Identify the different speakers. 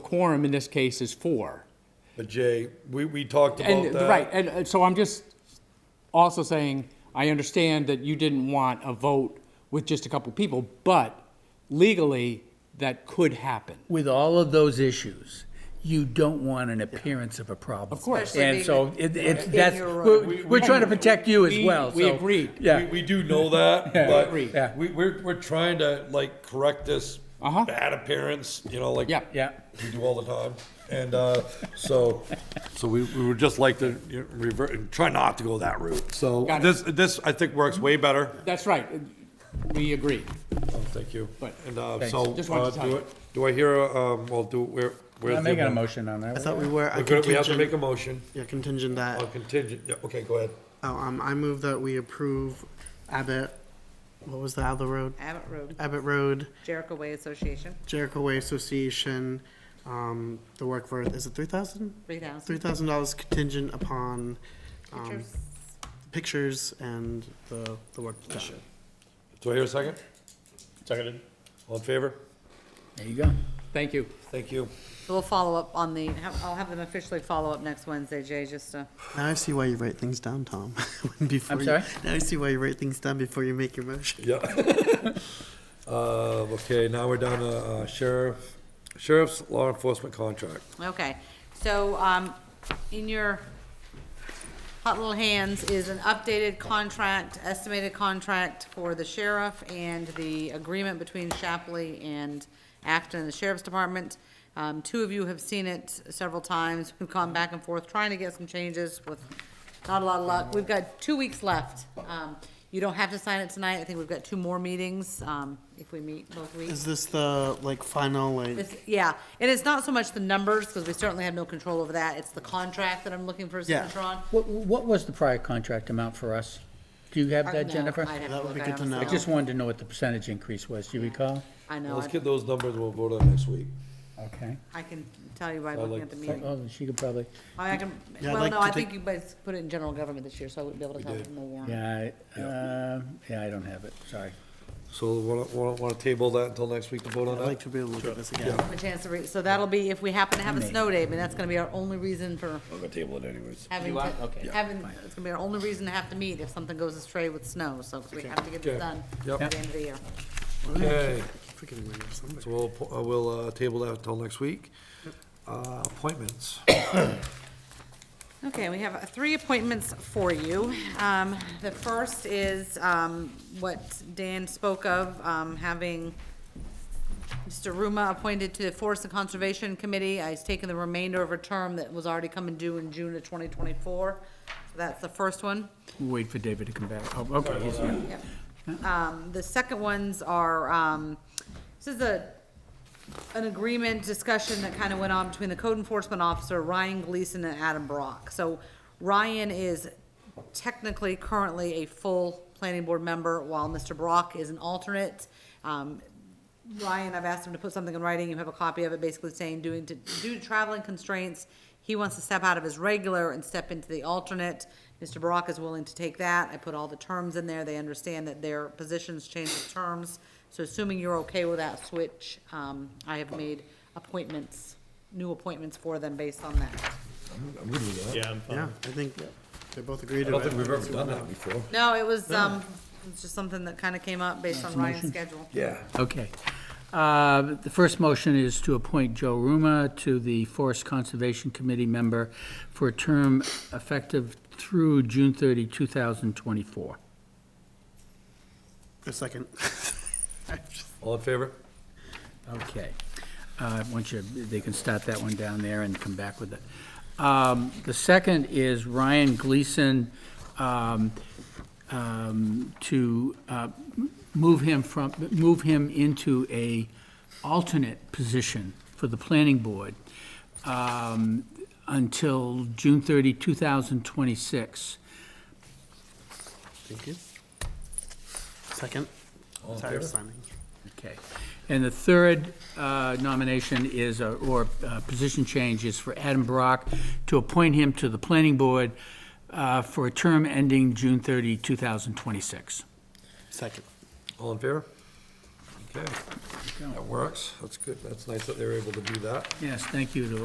Speaker 1: quorum in this case is four.
Speaker 2: But Jay, we, we talked about
Speaker 1: And,
Speaker 2: that.
Speaker 1: right, and uh, so I'm just also saying, I understand that you didn't want a vote with just a couple people, but legally, that could happen.
Speaker 3: with all of those issues, you don't want an appearance of a problem. Of
Speaker 1: course.
Speaker 4: Especially
Speaker 3: And
Speaker 4: being
Speaker 3: so it, it's, that's,
Speaker 4: your own.
Speaker 3: we're, we're trying to protect you as
Speaker 1: We-
Speaker 3: well,
Speaker 1: we
Speaker 3: so-
Speaker 1: agreed.
Speaker 2: We,
Speaker 3: Yeah,
Speaker 2: we do know that, but we,
Speaker 1: Agreed.
Speaker 3: Yeah.
Speaker 2: we're, we're trying to like correct this
Speaker 1: Uh-huh.
Speaker 2: bad appearance, you know, like
Speaker 1: Yeah.
Speaker 3: yeah.
Speaker 2: we do all the time. And, uh, so, so we, we would just like to you know, revert, and try not to go that route. So
Speaker 1: Got it.
Speaker 2: this, this I think works way better.
Speaker 1: That's right, we agree.
Speaker 2: Oh, Thank you.
Speaker 1: But-
Speaker 2: And, uh, so,
Speaker 1: Just wanted
Speaker 2: uh,
Speaker 1: to tell
Speaker 2: do
Speaker 1: you.
Speaker 2: it, do I hear, a, um, well, do, where, where's the?
Speaker 3: I'm making a motion on that.
Speaker 5: I thought we were.
Speaker 2: We're
Speaker 5: I
Speaker 2: gonna- We have to
Speaker 5: contingent-
Speaker 2: make a motion
Speaker 5: Yeah, contingent that.
Speaker 2: on contingent, yeah, okay, go ahead.
Speaker 5: Oh, um, I move that we approve Abbott. What was the other road?
Speaker 4: Abbott Road,
Speaker 5: Abbott Road,
Speaker 4: Jericho Way Association,
Speaker 5: Jericho Way Association. Um, the work for is it three thousand?
Speaker 4: three
Speaker 5: Three
Speaker 4: thousand.
Speaker 5: thousand dollars contingent upon um,
Speaker 4: Pictures.
Speaker 5: pictures and the the work done.
Speaker 2: Do I hear a second?
Speaker 6: Seconded.
Speaker 2: All in favor?
Speaker 3: There you go.
Speaker 1: Thank you.
Speaker 2: Thank you.
Speaker 4: So we'll follow up on the, have- I'll have them officially follow up next Wednesday, Jay, just to,
Speaker 5: Now I see why you write things down, Tom. before you-
Speaker 3: sorry?
Speaker 5: Now I see why you write things down before you make your motion.
Speaker 2: Yeah. Uh, okay, now we're down to uh, sheriff, sheriff's law enforcement contract.
Speaker 4: okay. So, um, in your hot little hands is an updated contract, estimated contract for the sheriff and the agreement between Shapley and Acton and the Sheriff's Department. Um, two of you have seen it several times. We've gone back and forth trying to get some changes with not a lot of luck. We've got two weeks left. Um, you don't have to sign it tonight. I think we've got two more meetings, um, if we meet both weeks.
Speaker 5: Is this the like final like?
Speaker 4: It's, yeah, and it's not so much the numbers, because we certainly have no control over that, it's the contract that I'm looking for a
Speaker 5: Yeah.
Speaker 4: signature on.
Speaker 3: What, what was the prior contract amount for us? Do you have that,
Speaker 4: Uh, No,
Speaker 3: Jennifer?
Speaker 4: I'd have
Speaker 5: That
Speaker 4: look.
Speaker 5: would be
Speaker 4: I
Speaker 5: good to
Speaker 4: honestly
Speaker 5: know.
Speaker 3: I just
Speaker 4: don't.
Speaker 3: wanted to know what the percentage increase was. Do you recall?
Speaker 4: I know,
Speaker 2: Let's
Speaker 4: I-
Speaker 2: get those numbers, we'll vote on next week.
Speaker 3: Okay.
Speaker 4: I can tell you by looking
Speaker 2: like
Speaker 4: at the
Speaker 2: to
Speaker 4: meeting.
Speaker 3: Oh, she could probably,
Speaker 4: I can,
Speaker 5: Yeah, I'd
Speaker 4: well,
Speaker 5: like
Speaker 4: no,
Speaker 5: to
Speaker 4: I
Speaker 5: take-
Speaker 4: think you guys put it in general government this year, so I wouldn't be able to tell
Speaker 2: did.
Speaker 4: from the warrant.
Speaker 3: yeah, I, uh, yeah, I don't have it, sorry.
Speaker 2: So wanna, wanna, wanna table that until next week to vote on
Speaker 5: I'd like
Speaker 2: that?
Speaker 5: to be able to look at this again.
Speaker 4: A chance to read, so that'll be, if we happen to have a
Speaker 3: May.
Speaker 4: snow day, but that's gonna be our only reason for
Speaker 6: I'm gonna table it anyways.
Speaker 4: having,
Speaker 3: You are?
Speaker 4: to-
Speaker 3: Okay. Yeah.
Speaker 4: having, it's gonna be our only reason to have to meet if something goes astray with snow, so 'cause we have to get
Speaker 2: Okay.
Speaker 4: this done
Speaker 2: Yep.
Speaker 4: by the end of the year.
Speaker 2: Okay,
Speaker 5: Freaking remember something.
Speaker 2: so we'll, po- uh, we'll, uh, table that until next week. Uh, appointments.
Speaker 4: Okay, we have uh, three appointments for you. Um, The first is um, what Dan spoke of, um, having Mr. Ruma appointed to the Forest and Conservation Committee. Uh, He's taken the remainder of a term that was already coming due in June of 2024. So That's the first one.
Speaker 3: We'll Wait for David to come back. Oh, okay, he's here.
Speaker 4: Um, The second ones are, um, this is a, an agreement discussion that kind of went on between the code enforcement officer, Ryan Gleason and Adam Brock. So Ryan is technically currently a full planning board member, while Mr. Brock is an alternate. Um, Ryan, I've asked him to put something in writing, you have a copy of it, basically saying, doing, to- due to traveling constraints, he wants to step out of his regular and step into the alternate. Mr. Brock is willing to take that, I put all the terms in there, they understand that their positions change the terms, so assuming you're okay with that switch, um, I have made appointments, new appointments for them based on that.
Speaker 6: Yeah, I'm fine.
Speaker 5: Yeah, I think they both agreed
Speaker 2: I
Speaker 5: to
Speaker 2: don't think
Speaker 5: it.
Speaker 2: we've ever done that before.
Speaker 4: No, it was, um, it's just something that kind of came up based on Ryan's schedule.
Speaker 2: Yeah.
Speaker 3: Okay. Uh, The first motion is to appoint Joe Ruma to the Forest Conservation Committee member for a term effective through June 30, 2024.
Speaker 5: A second.
Speaker 2: All in favor?
Speaker 3: Okay. Uh, Once you, they can start that one down there and come back with it. Um, The second is Ryan Gleason um, um, to uh, move him from, move him into a alternate position for the planning board um, until June 30, 2026.
Speaker 5: Thank you. Second.
Speaker 2: All in
Speaker 5: Sorry,
Speaker 2: favor?
Speaker 5: signing.
Speaker 3: Okay. And the third uh, nomination is, uh, or uh, position change is for Adam Brock to appoint him to the Planning Board uh, for a term ending June 30, 2026.
Speaker 5: Second.
Speaker 2: All in favor? Okay, that works, that's good, that's nice that they were able to do that.
Speaker 3: Yes, thank you to